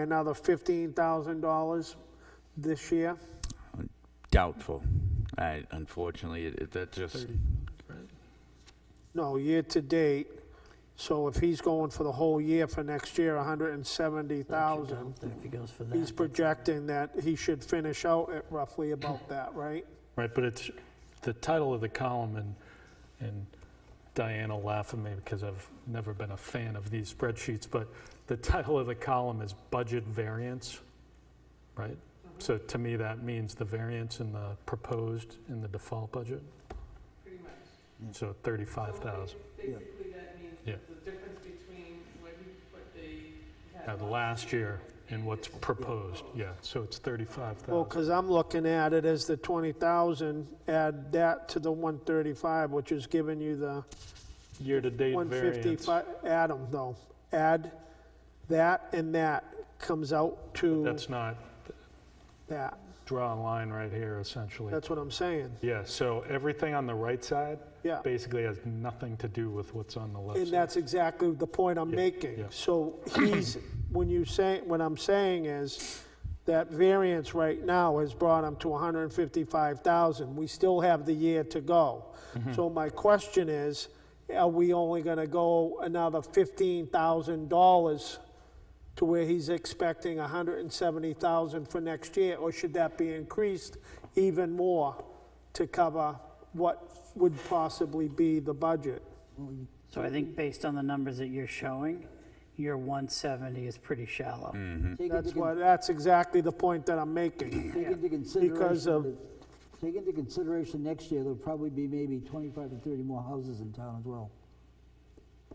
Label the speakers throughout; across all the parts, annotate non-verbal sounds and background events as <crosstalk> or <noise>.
Speaker 1: another $15,000 this year?
Speaker 2: Doubtful. I, unfortunately, it, it, that just,
Speaker 1: No, year-to-date. So if he's going for the whole year for next year, 170,000,
Speaker 3: Then if he goes for that.
Speaker 1: he's projecting that he should finish out at roughly
Speaker 4: <clears throat>
Speaker 1: about that, right?
Speaker 4: Right, but it's the title of the column, and, and Diana laugh at me because I've never been a fan of these spreadsheets, but the title of the column is budget variance, right?
Speaker 5: Mm-hmm.
Speaker 4: So to me, that means the variance in the proposed in the default budget. Pretty much. So 35,000.
Speaker 5: Basically, that means
Speaker 4: Yeah.
Speaker 5: the difference between what you, what they
Speaker 4: Now,
Speaker 5: had
Speaker 4: the last year and what's proposed, yeah, so it's
Speaker 1: Well,
Speaker 4: 35,000.
Speaker 1: because I'm looking at it as the 20,000, add that to the 135, which is giving you the
Speaker 4: Year-to-date variance.
Speaker 1: 155. Adam, though, add that and that comes out to
Speaker 4: That's not,
Speaker 1: that.
Speaker 4: draw a line right here essentially.
Speaker 1: That's what I'm saying,
Speaker 4: Yeah, so everything on the right side
Speaker 1: yeah.
Speaker 4: basically has nothing to do with what's on the left
Speaker 1: And
Speaker 4: side.
Speaker 1: that's exactly the point I'm
Speaker 4: Yeah,
Speaker 1: making.
Speaker 4: yeah.
Speaker 1: So he's, when you say, what I'm saying is that variance right now has brought him to 155,000. We still have the year to go.
Speaker 4: Mm-hmm.
Speaker 1: So my question is, are we only going to go another $15,000 to where he's expecting 170,000 for next year? Or should that be increased even more to cover what would possibly be the budget?
Speaker 3: So I think based on the numbers that you're showing, your 170 is pretty shallow.
Speaker 6: Take
Speaker 1: That's
Speaker 6: into,
Speaker 1: why,
Speaker 6: con-
Speaker 1: that's exactly the point that I'm making.
Speaker 6: take into
Speaker 1: Because of-
Speaker 6: consideration, that- take into consideration next year, there'll probably be maybe 25 to 30 more houses in town as well.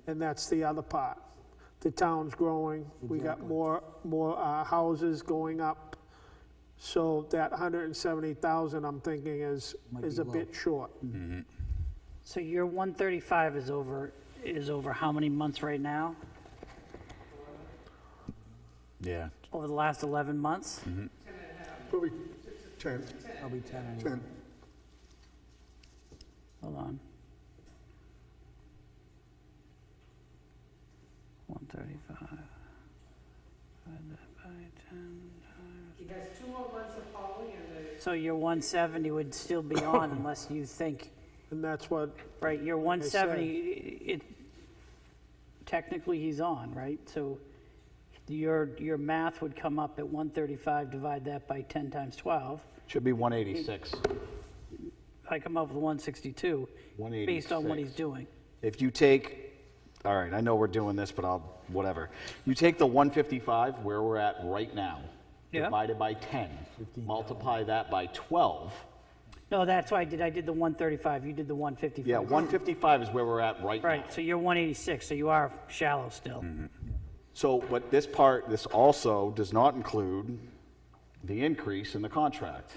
Speaker 1: And that's the other part. The town's growing, we got more, more uh, houses going up. So that 170,000, I'm thinking is,
Speaker 6: Might
Speaker 1: is
Speaker 6: be Mm-hmm.
Speaker 1: a bit short.
Speaker 3: So your 135 is over, is over how many months right now?
Speaker 2: yeah,
Speaker 3: Over the last 11 months?
Speaker 7: Probably 10,
Speaker 6: Probably 10 anyway.
Speaker 7: 10.
Speaker 3: Hold on. 135. Divide that by 10 times. So your 170 would still be on unless you think
Speaker 1: And that's what,
Speaker 3: Right, your
Speaker 1: said-
Speaker 3: 170, it, technically he's on, right? So your, your math would come up at 135, divide that by 10 times 12.
Speaker 8: Should be 186.
Speaker 3: I come up with 162, based on what he's
Speaker 8: 186.
Speaker 3: doing.
Speaker 8: If you take, all right, I know we're doing this, but I'll, whatever. You take the 155, where we're at right now,
Speaker 3: Yeah.
Speaker 8: divided by 10, multiply that by 12.
Speaker 3: No, that's why I did, I did the 135, you did the 155.
Speaker 8: Yeah, 155 is where we're at right now.
Speaker 3: Right, so you're 186, so you are shallow still.
Speaker 8: So, but this part, this also does not include the increase in the contract.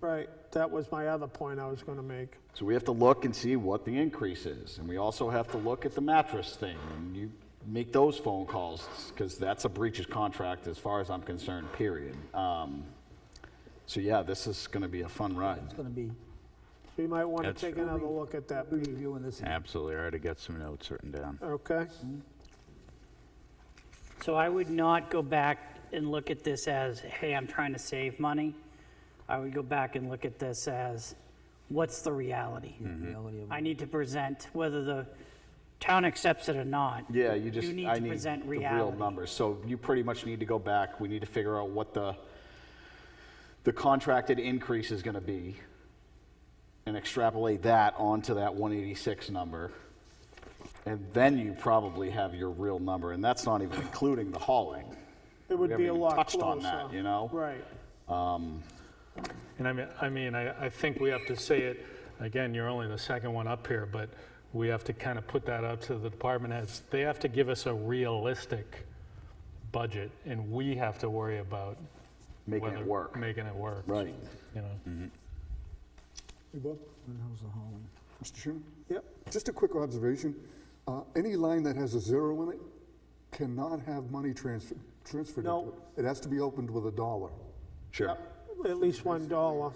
Speaker 1: right, that was my other point I was going to make.
Speaker 8: So we have to look and see what the increase is. And we also have to look at the mattress thing. And you make those phone calls because that's a breach of contract as far as I'm concerned, period. Um, so yeah, this is going to be a fun ride.
Speaker 6: It's gonna be,
Speaker 1: We might want to
Speaker 2: That's
Speaker 1: take
Speaker 2: true.
Speaker 1: another look at that,
Speaker 6: be reviewing this.
Speaker 2: absolutely. I already got some notes written down.
Speaker 1: okay?
Speaker 3: So I would not go back and look at this as, hey, I'm trying to save money. I would go back and look at this as, what's the reality?
Speaker 8: Mm-hmm.
Speaker 6: reality of it.
Speaker 3: I need to present whether the town accepts it or not.
Speaker 8: Yeah, you just,
Speaker 3: need
Speaker 8: I
Speaker 3: to
Speaker 8: need
Speaker 3: present
Speaker 8: the real
Speaker 3: reality.
Speaker 8: numbers. So you pretty much need to go back. We need to figure out what the, the contracted increase is going to be and extrapolate that onto that 186 number. And then you probably have your real number. And that's not even including the hauling.
Speaker 1: It would
Speaker 8: haven't
Speaker 1: be a
Speaker 8: even
Speaker 1: lot
Speaker 8: touched on
Speaker 1: closer.
Speaker 8: that, you know?
Speaker 1: Right.
Speaker 4: And I mean, I mean, I, I think we have to say it, again, you're only the second one up here, but we have to kind of put that out to the department heads. They have to give us a realistic budget, and we have to worry about.
Speaker 8: Making it
Speaker 4: whether-
Speaker 8: work.
Speaker 4: Making it work.
Speaker 8: Right.
Speaker 4: You know?
Speaker 7: Hey, Bob,
Speaker 6: When how's the hauling?
Speaker 7: Mr. Chairman,
Speaker 1: Yep,
Speaker 7: just a quick observation. Uh, Any line that has a zero in it cannot have money transfer- transferred into
Speaker 1: No.
Speaker 7: it. It has to be opened with a dollar,
Speaker 8: Sure.
Speaker 1: at least $1.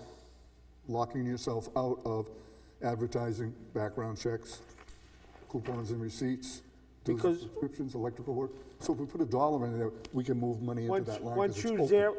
Speaker 7: locking yourself out of advertising, background checks, coupons and receipts, dues and
Speaker 1: Because-
Speaker 7: subscriptions, electrical work. So if we put a dollar in there, we can move money into
Speaker 1: Once,
Speaker 7: that line. 'cause
Speaker 1: once
Speaker 7: it's
Speaker 1: you
Speaker 7: open.
Speaker 1: zero,